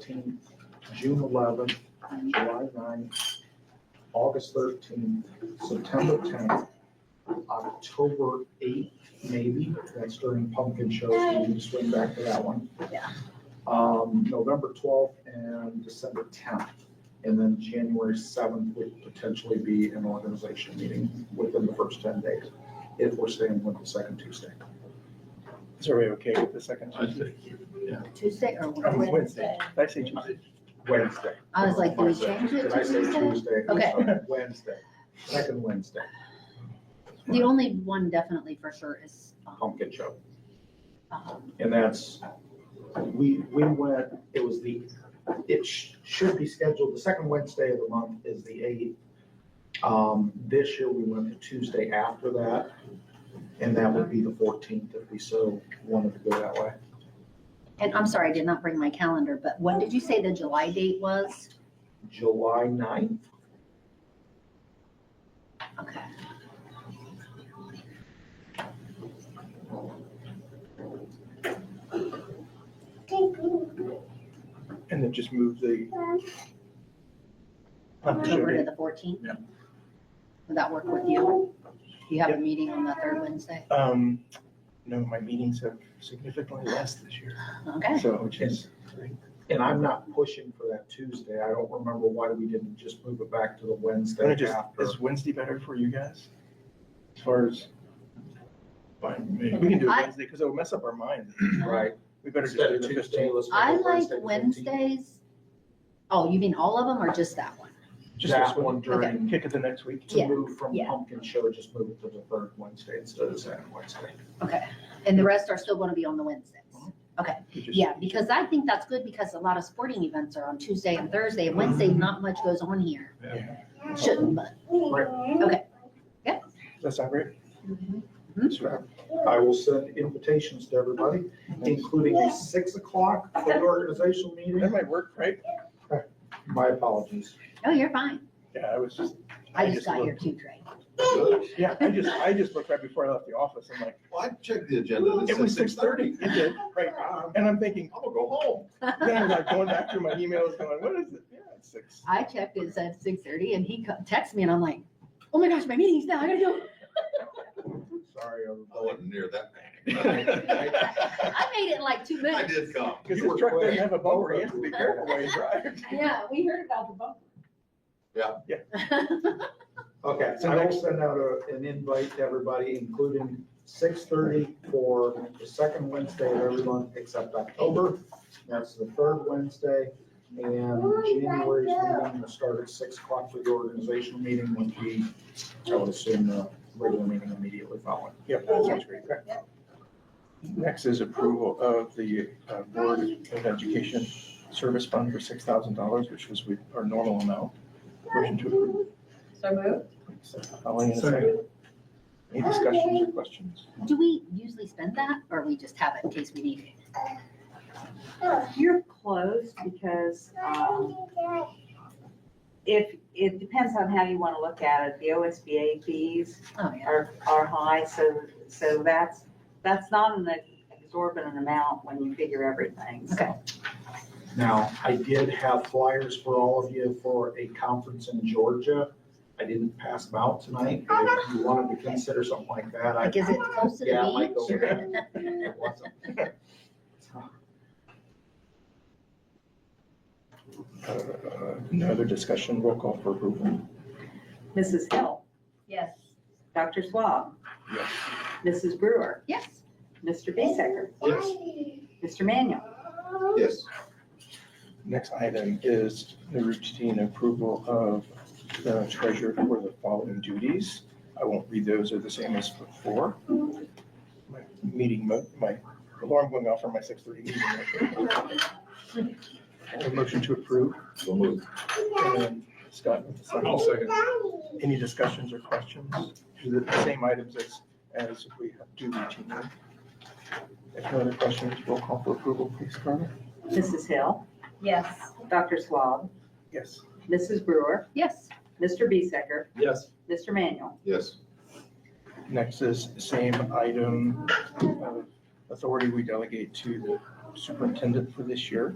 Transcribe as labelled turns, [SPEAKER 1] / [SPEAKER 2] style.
[SPEAKER 1] thirteenth, June eleventh, July 9th, August thirteenth, September tenth, October eighth, maybe, that's during pumpkin shows, we need to swing back to that one.
[SPEAKER 2] Yeah.
[SPEAKER 1] Um, November twelfth and December tenth, and then January seventh would potentially be an organization meeting within the first ten days, if we're staying with the second Tuesday.
[SPEAKER 3] Is everybody okay with the second
[SPEAKER 4] I
[SPEAKER 3] Tuesday?
[SPEAKER 4] think, yeah.
[SPEAKER 2] Tuesday or
[SPEAKER 3] Oh,
[SPEAKER 2] Wednesday?
[SPEAKER 3] Did I say Tuesday?
[SPEAKER 1] Wednesday.
[SPEAKER 2] I was like, do we
[SPEAKER 1] Wednesday.
[SPEAKER 2] change it
[SPEAKER 1] Did
[SPEAKER 2] to
[SPEAKER 1] I say
[SPEAKER 2] Tuesday?
[SPEAKER 1] Tuesday? I'm
[SPEAKER 2] Okay.
[SPEAKER 1] sorry, Wednesday, second Wednesday,
[SPEAKER 2] The only one definitely for sure is, um,
[SPEAKER 1] pumpkin show.
[SPEAKER 2] um,
[SPEAKER 1] And that's, we, we went, it was the, it sh- should be scheduled, the second Wednesday of the month is the eighth. Um, this year we went the Tuesday after that, and that would be the fourteenth if we so wanted to go that way.
[SPEAKER 2] and I'm sorry, I did not bring my calendar, but when did you say the July date was?
[SPEAKER 1] July 9th.
[SPEAKER 2] Okay.
[SPEAKER 3] And then just move the. Not the show
[SPEAKER 2] October to
[SPEAKER 3] date.
[SPEAKER 2] the fourteenth?
[SPEAKER 3] Yeah.
[SPEAKER 2] Would that work with you? Do you have a meeting on the third Wednesday?
[SPEAKER 3] Um, no, my meetings have significantly less this year,
[SPEAKER 2] Okay,
[SPEAKER 3] so, which is,
[SPEAKER 1] And I'm not pushing for that Tuesday. I don't remember why we didn't just move it back to the Wednesday
[SPEAKER 3] I just,
[SPEAKER 1] after.
[SPEAKER 3] is Wednesday better for you guys? As far as, fine, we can do it
[SPEAKER 2] I-
[SPEAKER 3] Wednesday, because it'll mess up our minds.
[SPEAKER 1] Right.
[SPEAKER 3] We better just do the fifteenth.
[SPEAKER 1] let's make
[SPEAKER 2] I
[SPEAKER 1] it
[SPEAKER 2] like
[SPEAKER 1] the 15th.
[SPEAKER 2] Wednesdays. Oh, you mean all of them or just that one?
[SPEAKER 3] Just this
[SPEAKER 1] That
[SPEAKER 3] one,
[SPEAKER 1] one during,
[SPEAKER 3] kick it the next week.
[SPEAKER 1] to
[SPEAKER 2] Yeah,
[SPEAKER 1] move from
[SPEAKER 2] yeah.
[SPEAKER 1] pumpkin show, just move it to the third Wednesday instead of the second Wednesday.
[SPEAKER 2] Okay, and the rest are still gonna be on the Wednesdays?
[SPEAKER 3] We just-
[SPEAKER 2] Yeah, because I think that's good because a lot of sporting events are on Tuesday and Thursday, and Wednesday, not much goes on here.
[SPEAKER 3] Yeah.
[SPEAKER 2] Shouldn't, but,
[SPEAKER 3] That's not great. Mm-hmm. Sure.
[SPEAKER 1] I will send invitations to everybody, including a six o'clock for the organizational
[SPEAKER 3] That
[SPEAKER 1] meeting.
[SPEAKER 3] might work, right?
[SPEAKER 1] My apologies.
[SPEAKER 2] oh, you're fine.
[SPEAKER 3] Yeah, I was just, I
[SPEAKER 2] I just
[SPEAKER 3] just
[SPEAKER 2] got here
[SPEAKER 3] looked.
[SPEAKER 2] too, Trey.
[SPEAKER 3] yeah, I just, I just looked right before I left the office, I'm like,
[SPEAKER 4] Well, I checked the agenda, and
[SPEAKER 3] it
[SPEAKER 4] it
[SPEAKER 3] was
[SPEAKER 4] said
[SPEAKER 3] six thirty,
[SPEAKER 4] 6:30.
[SPEAKER 3] it did, right,
[SPEAKER 4] I'm
[SPEAKER 3] and I'm thinking,
[SPEAKER 4] gonna go home.
[SPEAKER 3] then I'm like going back through my emails, going, what is it? Yeah, it's six.
[SPEAKER 2] I checked, it said six thirty, and he co- texted me, and I'm like, oh my gosh, my meeting's now, I gotta go.
[SPEAKER 1] Sorry,
[SPEAKER 4] I
[SPEAKER 1] everybody.
[SPEAKER 4] wasn't near that panic.
[SPEAKER 3] Because
[SPEAKER 2] I made it in like two
[SPEAKER 4] I
[SPEAKER 2] minutes.
[SPEAKER 4] did come.
[SPEAKER 3] this
[SPEAKER 4] You were
[SPEAKER 3] truck doesn't
[SPEAKER 4] quick.
[SPEAKER 3] have a bumper, he has to be careful while he drives.
[SPEAKER 2] Yeah, we heard about the bumper.
[SPEAKER 4] Yeah.
[SPEAKER 1] Okay, so I will send out a- an invite to everybody, including six thirty for the second Wednesday of every month except October. That's the third Wednesday, and January's meeting will start at six o'clock for the organizational meeting, which we, I would assume, the regular meeting immediately following.
[SPEAKER 3] Yep, that sounds great. Next is approval of the uh, Board of Education Service Fund for six thousand dollars, which was we- our normal amount. Motion to approve.
[SPEAKER 5] So moved?
[SPEAKER 3] Colleen, a second. Any discussions or questions?
[SPEAKER 2] Do we usually spend that, or we just have it in case we need it?
[SPEAKER 6] You're closed because um, if, it depends on how you want to look at it. The OSBA fees
[SPEAKER 2] Oh, yeah.
[SPEAKER 6] are, are high, so, so that's, that's not an exorbitant amount when you figure everything. so.
[SPEAKER 2] Okay.
[SPEAKER 1] Now, I did have flyers for all of you for a conference in Georgia. I didn't pass them out tonight, but if you wanted to consider something like that, I.
[SPEAKER 2] Like, is it close to
[SPEAKER 1] Yeah, I might go
[SPEAKER 2] the
[SPEAKER 1] there. It wasn't.
[SPEAKER 3] Uh, No other discussion, roll call for approval.
[SPEAKER 6] Mrs. Hill,
[SPEAKER 5] Yes.
[SPEAKER 6] Dr. Swab, Mrs. Brewer,
[SPEAKER 2] beach? Yes.
[SPEAKER 6] Mr. Bisecker, Mr. Manuel.
[SPEAKER 4] Yes,
[SPEAKER 3] Next item is the routine approval of the treasurer for the following duties. I won't read those, they're the same as before. My Meeting, mo- my alarm going off for my six thirty meeting. A motion to approve.
[SPEAKER 4] so moved.
[SPEAKER 3] and Scott with the second.
[SPEAKER 4] second.
[SPEAKER 3] Any discussions or questions? These are the same items as, as we do routinely. If no other questions, roll call for approval, please, Carmen.
[SPEAKER 6] Mrs. Hill,
[SPEAKER 5] Yes.
[SPEAKER 6] Dr. Swab,
[SPEAKER 3] Yes.
[SPEAKER 6] Mrs. Brewer,
[SPEAKER 2] Yes.
[SPEAKER 6] Mr. Bisecker,
[SPEAKER 4] Yes.
[SPEAKER 6] Mr. Manuel.
[SPEAKER 4] Yes,
[SPEAKER 3] Next is same item of authority we delegate to the superintendent for this year.